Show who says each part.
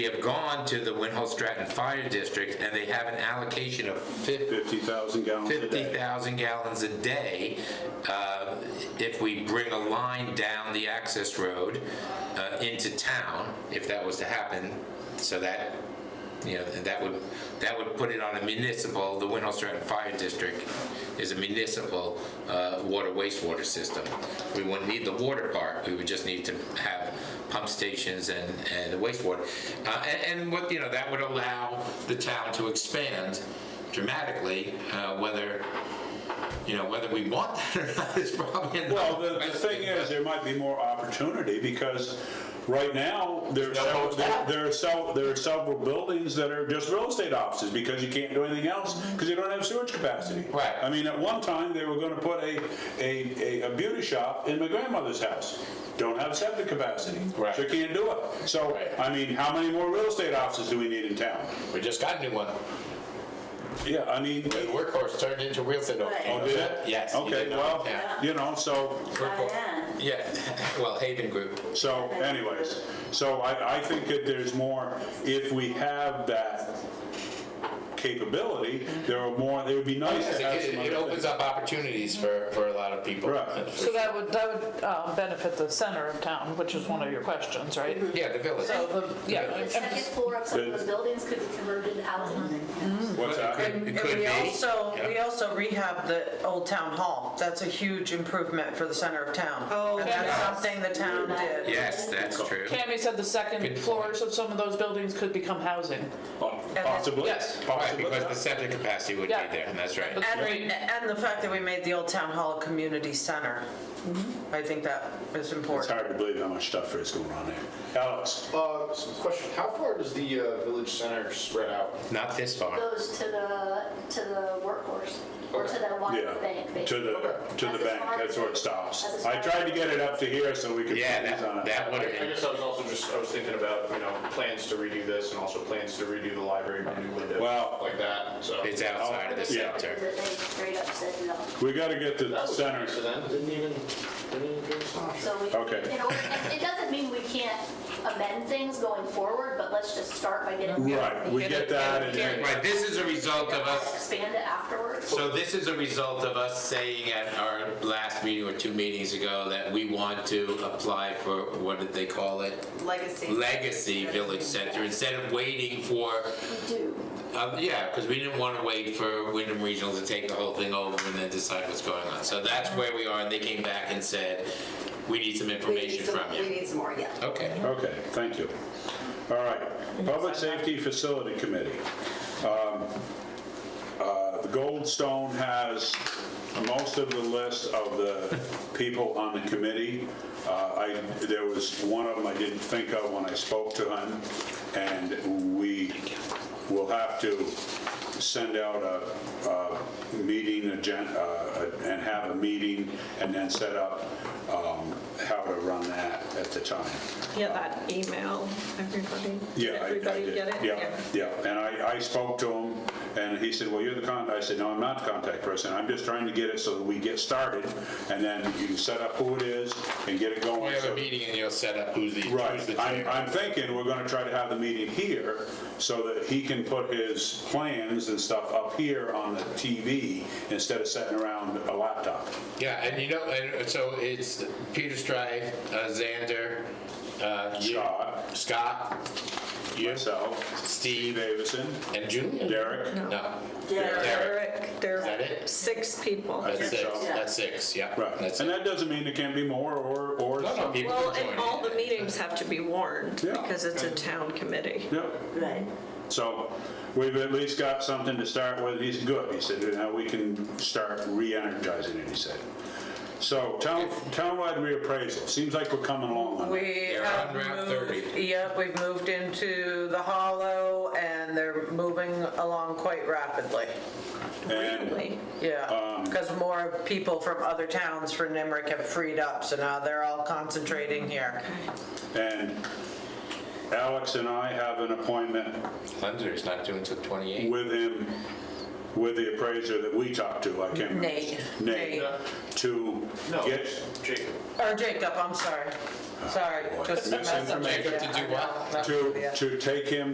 Speaker 1: We have gone to the Winhall Stratton Fire District and they have an allocation of fif-
Speaker 2: 50,000 gallons a day.
Speaker 1: 50,000 gallons a day. uh, If we bring a line down the access road uh, into town, if that was to happen, so that, you know, that would, that would put it on a municipal, the Winhall Stratton Fire District is a municipal uh, water wastewater system. We wouldn't need the water part, we would just need to have pump stations and, and wastewater. Uh, and- And what, you know, that would allow the town to expand dramatically, uh, whether, you know, whether we want that or not is probably another
Speaker 2: Well, the, the
Speaker 1: question,
Speaker 2: thing is,
Speaker 1: but-
Speaker 2: there might be more opportunity because right now, there are
Speaker 1: No
Speaker 2: several,
Speaker 1: hotel.
Speaker 2: there there are several, there are several buildings that are just real estate offices because you can't do anything else because you don't have sewage capacity.
Speaker 1: Right.
Speaker 2: I mean, at one time, they were gonna put a, a, a- a beauty shop in my grandmother's house. Don't have septic capacity.
Speaker 1: Right.
Speaker 2: So you can't do it. So,
Speaker 1: Right.
Speaker 2: I mean, how many more real estate offices do we need in town?
Speaker 1: We just got a new one.
Speaker 2: Yeah, I mean,
Speaker 1: The workhorse turned into real estate office.
Speaker 2: oh, did it?
Speaker 1: Yes. you
Speaker 2: Okay,
Speaker 1: didn't know
Speaker 2: well,
Speaker 1: it, yeah.
Speaker 2: you know, so.
Speaker 1: Workhorse. Yeah, well, Haven Group.
Speaker 2: So anyways, so I, I think that there's more, if we have that capability, there are more, it would be nice
Speaker 1: Yes,
Speaker 2: to have
Speaker 1: It
Speaker 2: some
Speaker 1: it
Speaker 2: other
Speaker 1: opens
Speaker 2: things.
Speaker 1: up opportunities for, for a lot of people.
Speaker 2: Right.
Speaker 3: So that would, that would um, benefit the center of town, which is one of your questions, right?
Speaker 1: Yeah, the village.
Speaker 3: So, the- yeah.
Speaker 4: The second floor of some of those buildings could be converted into housing.
Speaker 2: What's that?
Speaker 1: It
Speaker 5: And
Speaker 1: could
Speaker 5: we
Speaker 1: be.
Speaker 5: also,
Speaker 1: Yeah.
Speaker 5: we also rehab the old town hall. That's a huge improvement for the center of town.
Speaker 3: Oh,
Speaker 5: And that's
Speaker 3: yeah.
Speaker 5: something the town did.
Speaker 1: Yes, that's true.
Speaker 3: Tammy said the second
Speaker 1: Good
Speaker 3: floors of some of those buildings could become housing.
Speaker 2: Possibly,
Speaker 3: Yes.
Speaker 1: Right,
Speaker 2: possibly.
Speaker 1: because the septic capacity would be
Speaker 3: Yeah.
Speaker 1: there, and that's right.
Speaker 3: But-
Speaker 5: And, and the fact that we made the old town hall a community center. I think that is
Speaker 2: It's
Speaker 5: important.
Speaker 2: hard to believe how much stuff is going on there. Alex,
Speaker 6: Uh, Question, how far does the uh, village center spread out?
Speaker 1: Not this far.
Speaker 4: Goes to the, to the workhorse, or to that
Speaker 2: yeah,
Speaker 4: water bank.
Speaker 2: to
Speaker 4: basically.
Speaker 2: the, to the
Speaker 4: That's as
Speaker 2: bank,
Speaker 4: far
Speaker 2: that's
Speaker 4: as-
Speaker 2: where it stops.
Speaker 4: that's as
Speaker 2: I
Speaker 4: far
Speaker 2: tried
Speaker 4: as-
Speaker 2: to get it up to here so we could.
Speaker 1: Yeah,
Speaker 2: focus on
Speaker 1: that,
Speaker 2: it.
Speaker 1: that would
Speaker 6: I
Speaker 1: have
Speaker 6: I
Speaker 1: been,
Speaker 6: guess I was also just, I was thinking about, you know, plans to redo this and also plans to redo the library, redo windows,
Speaker 2: Well-
Speaker 6: stuff like that, so.
Speaker 1: it's outside of the
Speaker 2: Yeah.
Speaker 1: center.
Speaker 4: They straight up said no.
Speaker 2: We gotta get to the
Speaker 6: That was
Speaker 2: center.
Speaker 6: nice of them, didn't even, didn't even give us an option.
Speaker 4: So we,
Speaker 2: Okay.
Speaker 4: you know, it it doesn't mean we can't amend things going forward, but let's just start by getting.
Speaker 2: Right, we get that and then,
Speaker 1: Right, this is a result of us
Speaker 4: Expand it afterwards.
Speaker 1: So this is a result of us saying at our last meeting or two meetings ago that we want to apply for, what did they call it?
Speaker 5: Legacy.
Speaker 1: Legacy Village Center, instead of waiting for,
Speaker 4: We do.
Speaker 1: uh, yeah, because we didn't want to wait for Wyndham Regional to take the whole thing over and then decide what's going on. So that's where we are, and they came back and said, we need some information from you.
Speaker 7: need some more, yeah.
Speaker 1: Okay.
Speaker 2: okay, thank you. All right, Public Safety Facility Committee. Um, uh, The Goldstone has most of the list of the people on the committee. Uh, I, there was one of them I didn't think of when I spoke to him, and we will have to send out a, a meeting agenda, and have a meeting, and then set up um, how to run that at the time.
Speaker 8: Yeah, that email, everybody.
Speaker 2: Yeah, I- I did.
Speaker 8: Everybody get it?
Speaker 2: Yeah, yeah, and I, I spoke to him, and he said, well, you're the con, I said, no, I'm not the contact person, I'm just trying to get it so that we get started, and then you can set up who it is and get it going.
Speaker 1: We have
Speaker 2: so-
Speaker 1: a meeting and you'll set up who's the, who's the
Speaker 2: Right, I'm,
Speaker 1: chair.
Speaker 2: I'm thinking we're gonna try to have the meeting here, so that he can put his plans and stuff up here on the TV, instead of sitting around a laptop.
Speaker 1: Yeah, and you know, and so it's Peter Strife, uh, Xander, uh, you-
Speaker 2: Scott,
Speaker 1: Scott, you,
Speaker 2: myself, Steve
Speaker 1: Steve,
Speaker 2: Davison,
Speaker 1: and Julia.
Speaker 2: Derek,
Speaker 1: No,
Speaker 8: Yeah,
Speaker 1: Derek.
Speaker 8: Eric, there
Speaker 1: Is that
Speaker 8: are
Speaker 1: it?
Speaker 8: six people.
Speaker 2: I
Speaker 1: that's
Speaker 2: think
Speaker 1: six,
Speaker 2: so.
Speaker 1: that's six, yeah.
Speaker 2: right,
Speaker 1: That's
Speaker 2: and
Speaker 1: it.
Speaker 2: that doesn't mean it can't be more, or, or.
Speaker 1: No, no,
Speaker 2: some-
Speaker 1: people
Speaker 8: Well,
Speaker 1: can
Speaker 8: and
Speaker 1: join
Speaker 8: all
Speaker 1: in.
Speaker 8: the meetings have to be warned
Speaker 2: Yeah.
Speaker 8: because it's a town committee.
Speaker 2: Yep.
Speaker 7: Right.
Speaker 2: So we've at least got something to start with. He's good. He said, now we can start re-energizing it, he said. So town, townwide reappraisal, seems like we're coming along on it.
Speaker 5: We
Speaker 1: They're
Speaker 5: have
Speaker 1: on Route 30.
Speaker 5: moved, yep, we've moved into the hollow and they're moving along quite rapidly.
Speaker 2: And
Speaker 8: Really?
Speaker 1: Um,
Speaker 5: Yeah, because more people from other towns for Nimerick have freed up, so now they're all concentrating here.
Speaker 2: And Alex and I have an appointment
Speaker 1: Hunter's not doing till 28.
Speaker 2: with him with the appraiser that we talked to, I can't remember.
Speaker 5: Nate.
Speaker 2: Nate,
Speaker 5: Nate.
Speaker 2: to
Speaker 6: No,
Speaker 2: get
Speaker 6: Jacob.
Speaker 5: Or Jacob, I'm sorry. Sorry, just.
Speaker 2: Misinformation.
Speaker 5: messed
Speaker 1: Jacob
Speaker 5: up.
Speaker 1: to do what?
Speaker 5: Yeah, I know.
Speaker 2: to, to take him